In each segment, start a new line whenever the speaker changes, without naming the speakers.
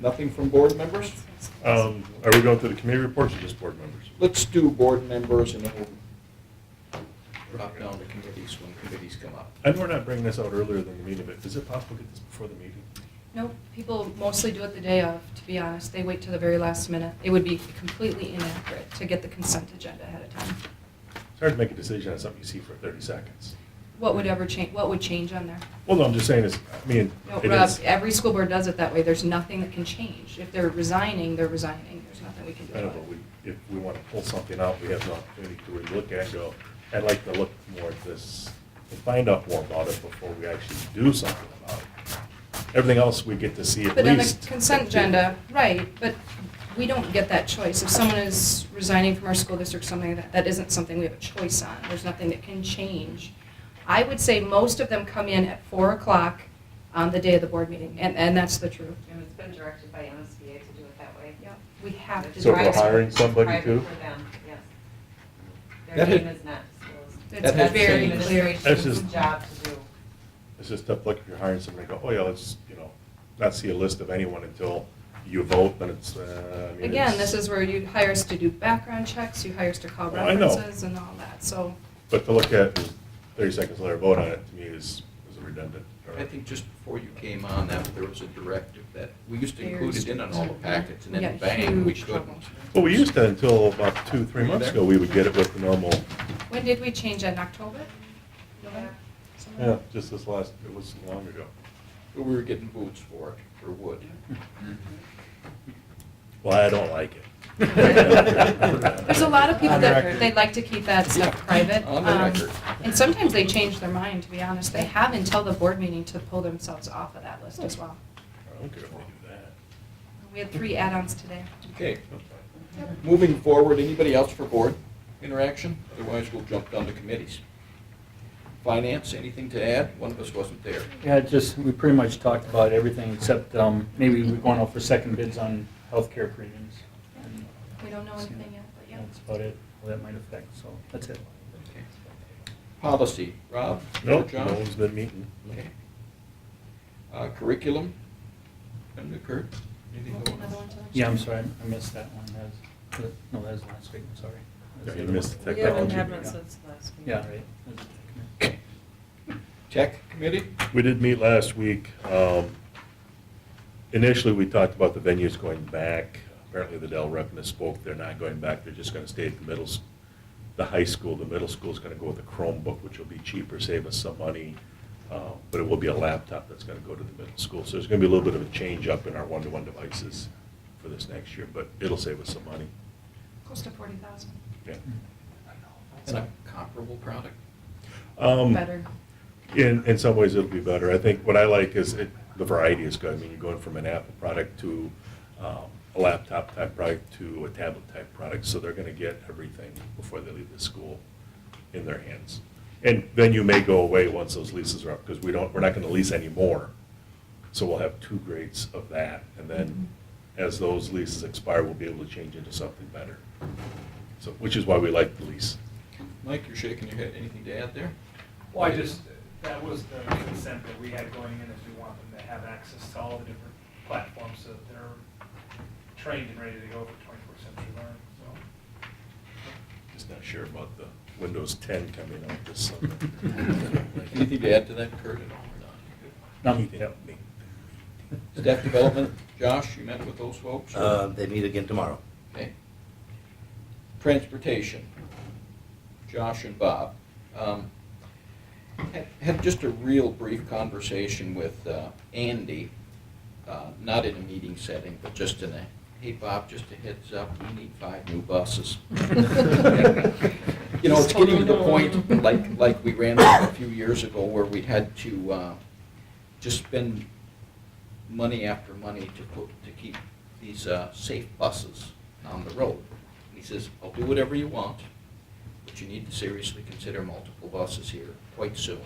Nothing from board members?
Um, Are we going through the committee reports or just board members?
Let's do board members and then we'll knock down the committees when committees come up.
I know we're not bringing this out earlier than the meeting, but is it possible to get this before the meeting?
Nope, people mostly do it the day of, to be honest. They wait till the very last minute. It would be completely inaccurate to get the consent agenda ahead of time.
It's hard to make a decision on something you see for 30 seconds.
What would ever change, what would change on there?
Well, no, I'm just saying is, I mean,
No,
it
Rob,
is.
every school board does it that way. There's nothing that can change. If they're resigning, they're resigning. There's nothing we can do
I
about
don't
it.
know, we- if we want to pull something out, we have an opportunity to really look at it and go, I'd like to look more at this and find out more about it before we actually do something about it. Everything else, we get to see at least.
But on the consent agenda, right, but we don't get that choice. If someone is resigning from our school district, something like that, that isn't something we have a choice on. There's nothing that can change. I would say most of them come in at four o'clock on the day of the board meeting, and, and that's the truth.
And it's been directed by MSBA to do it that way.
Yep, We have to.
So if
do
we're
it.
hiring somebody too?
Private for them, yes. Their
That had-
name is not disclosed.
It's
That had
very
changed.
clear.
That's just-
Administration's job to do.
It's just tough, like if you're hiring somebody, go, oh yeah, let's, you know, not see a list of anyone until you vote, then it's, uh, I mean.
Again,
it's-
this is where you hire us to do background checks, you hire us to call
Oh, I know.
references and all that, so.
But to look at thirty seconds later, vote on it, to me is, is redundant. or-
I think just before you came on, that there was a directive that, we used to include it in on all the packets, and
We
then
got
bang, we
huge trouble.
couldn't.
Well, we used to until about two, three months ago, we would get it with the normal,
When did we change that, in October? November? Something like
yeah,
that?
just this last, it was long ago.
But we were getting boots for it, for wood.
Well, I don't like it.
There's a lot of people
On
that,
record.
they like to keep that stuff
Yeah,
private.
on the
um,
record.
And sometimes they change their mind, to be honest. They have until the board meeting to pull themselves off of that list as well.
I don't care if we do that.
We had three add-ons today.
Okay, moving forward, anybody else for board interaction? Otherwise, we'll jump down to committees. Finance, anything to add? One of us wasn't there.
Yeah, just, we pretty much talked about everything except um, maybe we're going out for second bids on healthcare premiums.
We don't know anything yet, but yeah.
That's about it, Well, that might affect, so that's it.
Okay. Policy, Rob? or
Nope,
John?
no one's been meeting.
Okay. Uh, Curriculum, and the Kurt? anything
We'll
going
do
on?
another one till next
Yeah, I'm
week.
sorry, I missed that one, that was, no, that was last week, I'm sorry. That's
Yeah, you
other
missed
one.
We haven't had
Yeah.
one
last
Yeah, right. That's the technical.
Tech Committee?
We did meet last week. Um, Initially, we talked about the venues going back. Apparently, the Dell rep has spoke, they're not going back, they're just gonna stay at the middle, s- the high school. The middle school's gonna go with a Chromebook, which will be cheaper, save us some money. Uh, But it will be a laptop that's gonna go to the middle school. So there's gonna be a little bit of a change up in our one-to-one devices for this next year, but it'll save us some money.
Close to forty thousand.
Yeah.
And a comparable product?
Um,
Better.
In, in some ways, it'll be better. I think what I like is it, the variety is good. I mean, you're going from an Apple product to um, a laptop type product to a tablet type product. So they're going to get everything before they leave the school in their hands. And then you may go away once those leases are up because we don't, we're not going to lease anymore. So we'll have two grades of that. And then as those leases expire, we'll be able to change into something better. So, which is why we like the lease.
Mike, you're shaking your head. Anything to add there?
Well, I just, that was the consent that we had going in, is we want them to have access to all the different platforms so that they're trained and ready to go for twenty-first century learning, so.
Just not sure about the Windows 10 coming out this
Anything to add to that, Kurt, at all or not?
Um,
summer. me.
Staff Development, Josh, you met with those folks? or-
Uh, They meet again tomorrow.
Okay. Transportation, Josh and Bob. um, had- Had just a real brief conversation with uh, Andy, uh, not in a meeting setting, but just in a, hey, Bob, just a heads up, we need five new buses. You know, it's getting to the point, like, like we ran into a few years ago, where we had to uh, just spend money after money to put, to keep these uh, safe buses on the road. He says, I'll do whatever you want, but you need to seriously consider multiple buses here quite soon.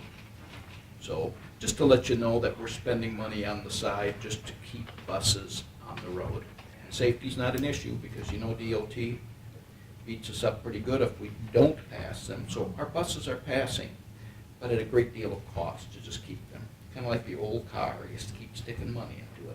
So just to let you know that we're spending money on the side just to keep buses on the road. And Safety's not an issue because you know DOT beats us up pretty good if we don't pass them. So our buses are passing, but at a great deal of cost to just keep them. Kind of like the old car, you just keep sticking money in it.